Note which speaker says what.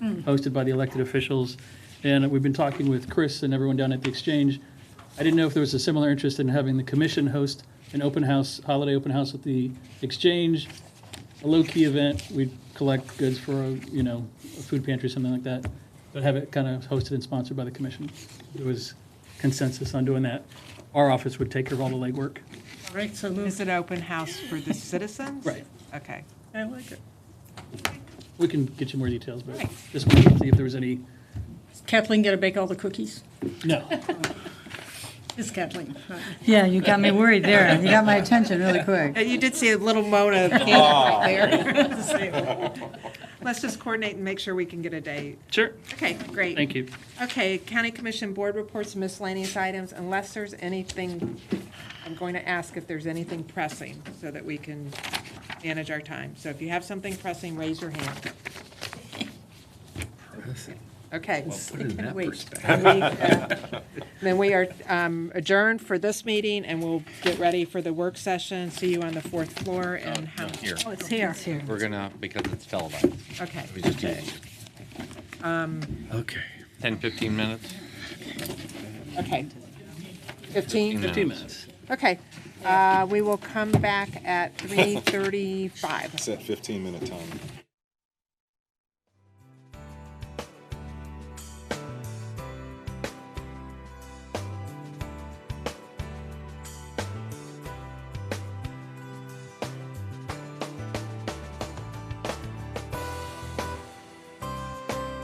Speaker 1: hosted by the elected officials. And we've been talking with Chris and everyone down at the Exchange. I didn't know if there was a similar interest in having the commission host an open house, holiday open house at the Exchange, a low-key event. We'd collect goods for, you know, a food pantry, something like that, but have it kind of hosted and sponsored by the commission. There was consensus on doing that. Our office would take care of all the legwork.
Speaker 2: All right, so
Speaker 3: Is
Speaker 2: moved.
Speaker 3: it open house for the citizens?
Speaker 1: Right.
Speaker 3: Okay.
Speaker 2: I like it.
Speaker 1: We can get you more details, but
Speaker 3: Right.
Speaker 1: just wanted to see if there was any,
Speaker 2: Kathleen going to bake all the cookies?
Speaker 1: no.
Speaker 2: It's Kathleen. All right.
Speaker 4: Yeah, you got me worried there. You got my attention really quick.
Speaker 3: And Uh, you did see a little Mona peek right there. Let's just coordinate and make sure we can get a date.
Speaker 1: Sure.
Speaker 3: Okay, great.
Speaker 1: Thank you.
Speaker 3: Okay, county commission board reports, miscellaneous items, unless there's anything, I'm going to ask if there's anything pressing so that we can manage our time. So if you have something pressing, raise your hand. Okay. And we, uh, Then we are um, adjourned for this meeting and we'll get ready for the work session. See you on the fourth floor and how.
Speaker 5: Here,
Speaker 2: Oh, it's here.
Speaker 5: we're gonna, because it's televised.
Speaker 3: Okay.
Speaker 5: We just do it.
Speaker 6: Okay.
Speaker 5: 10, 15 minutes?
Speaker 3: Okay. Fifteen?
Speaker 1: 15 minutes.
Speaker 3: Okay. Uh, We will come back at 3:35.
Speaker 7: Set 15 minute time.